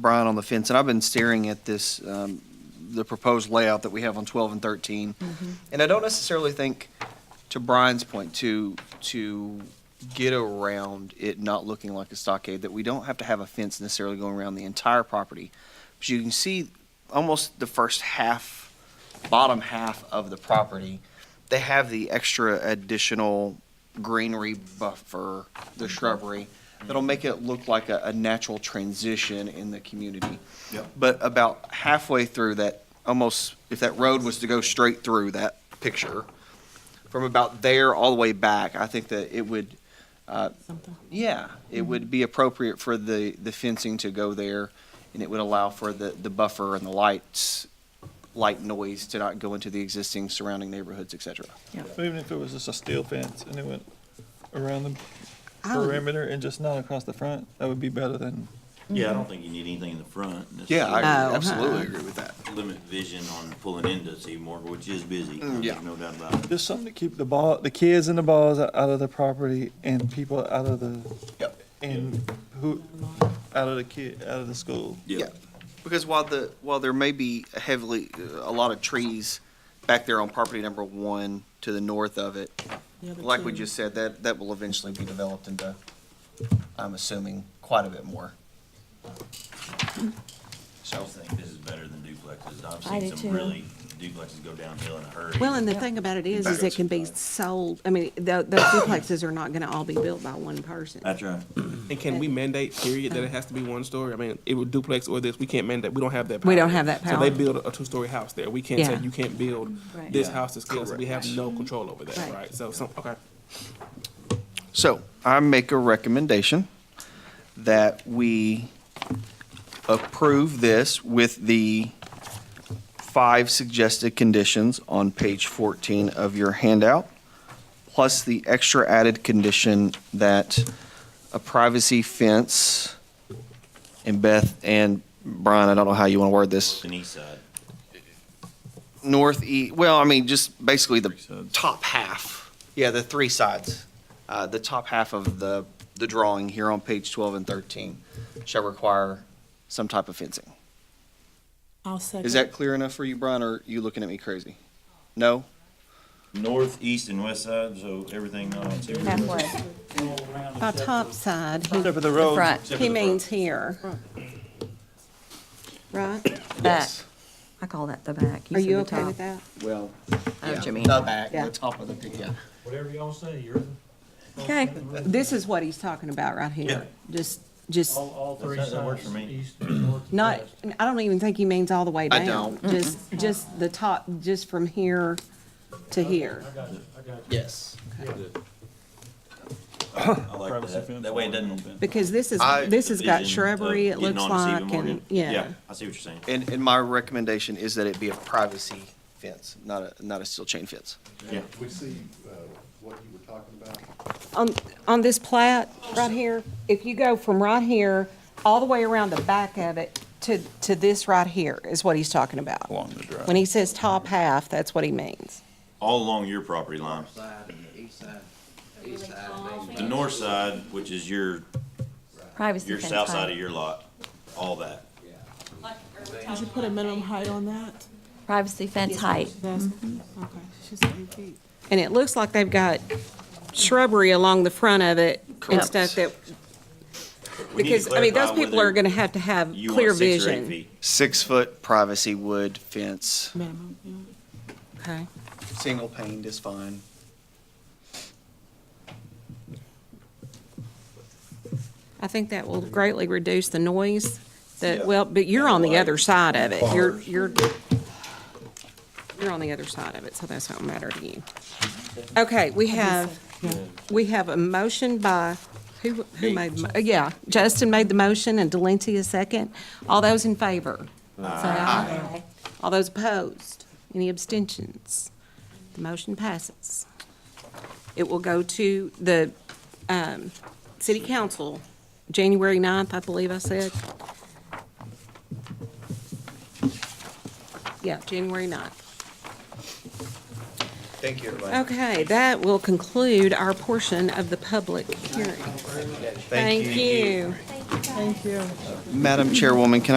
Brian on the fence, and I've been staring at this, um, the proposed layout that we have on 12 and 13. And I don't necessarily think, to Brian's point, to, to get around it not looking like a stockade, that we don't have to have a fence necessarily going around the entire property. But you can see almost the first half, bottom half of the property, they have the extra additional greenery buffer, the shrubbery, that'll make it look like a, a natural transition in the community. Yep. But about halfway through that, almost, if that road was to go straight through that picture, from about there all the way back, I think that it would, uh, yeah, it would be appropriate for the, the fencing to go there, and it would allow for the, the buffer and the lights, light noise to not go into the existing surrounding neighborhoods, et cetera. Even if it was just a steel fence and it went around the I would- perimeter and just not across the front, that would be better than. Yeah, I Mm-hmm. don't think you need anything in the front. Yeah, Oh, I No, absolutely uh-uh. agree with that. Limit vision on pulling into Seymour, which is busy, Mm, yeah. there's no doubt about it. Just something to keep the ball, the kids and the balls out of the property and people out of the. Yep. And who, out of the kid, out of the school. Yeah. Because while the, while there may be heavily, a lot of trees back there on property number one to the north of it, like we just said, that, that will eventually be developed into, I'm assuming, quite a bit more. I just think this is better than duplexes. I've I do seen too. some really duplexes go downhill in a hurry. Well, and the thing about it is, is it can be sold, I mean, tho- those duplexes are not gonna all be built by one person. That's right. And can we mandate, period, that it has to be one story? I mean, it would duplex or this, we can't mandate, we don't have that power. We don't have that So they power. build a two-story house there. We can't say, Yeah. you can't build Right. this Yeah. house to scale, so we have no control over that, Right. right? So, some, okay. So I make a recommendation that we approve this with the five suggested conditions on page 14 of your handout, plus the extra added condition that a privacy fence, and Beth and Brian, I don't know how you want to word this, An east side. northeast, well, I mean, just basically the Three sides. top half. Yeah, the three sides. Uh, The top half of the, the drawing here on page 12 and 13 shall require some type of fencing. I'll second. Is that clear enough for you, Brian, or are you looking at me crazy? No? North, east, and west side, so everything on Seymour. Halfway. By top side, he- Except for the road. he means here. Right? Back. I call that the back. Are said you the okay top. with that? Well. I know what you mean. The back, Yeah. the top of the, pic- yeah. Whatever y'all say, you're, Okay, This is what he's talking about right here. Just, just, all, all three That- that works sides, for me. east, north, not, west. I don't even think he means all the way I down. don't. Just, just the top, just from here to here. I got you, I got you. Yes. I like that. That way it doesn't. Because this is, I- this has got vision of shrubbery, it getting looks onto Stephen like, Morgan. and, yeah. I see what you're saying. And, and my recommendation is that it be a privacy fence, not a, not a steel chain fence. Yeah. We see uh, what you were talking about. on, on this plat right here, if you go from right here, all the way around the back of it to, to this right here is what he's talking about. Along the drive. When he says top half, that's what he means. All along your property line. The north side, which is your, privacy your fence. south side height. of your lot, all that. Did you put a minimum height on that? Privacy fence height. That's, okay, she said eight feet. And it looks like they've got shrubbery along the front of it and Correct. stuff that, We need to because, I mean, those clarify people whether are gonna have to have you want clear six or eight vision. feet. Six-foot privacy wood fence, Minimum, yeah. Okay. single pane is fine. I think that will greatly reduce the noise Yeah. that, well, but you're on the Like other side of it. You're, cars. you're, you're on the other side of it, so that's not matter to you. Okay, we have, we have a motion by, who, who made, the mo- yeah, Justin made the motion and Delancey a second. All those in favor? Aye. All those opposed? Any abstentions? The motion passes. It will go to the um, city council, January 9th, I believe I said. Yeah, January 9th. Thank you, everybody. Okay, that will conclude our portion of the public hearing. Thank you. Thank you, guys. Thank you. Madam Chairwoman, can I?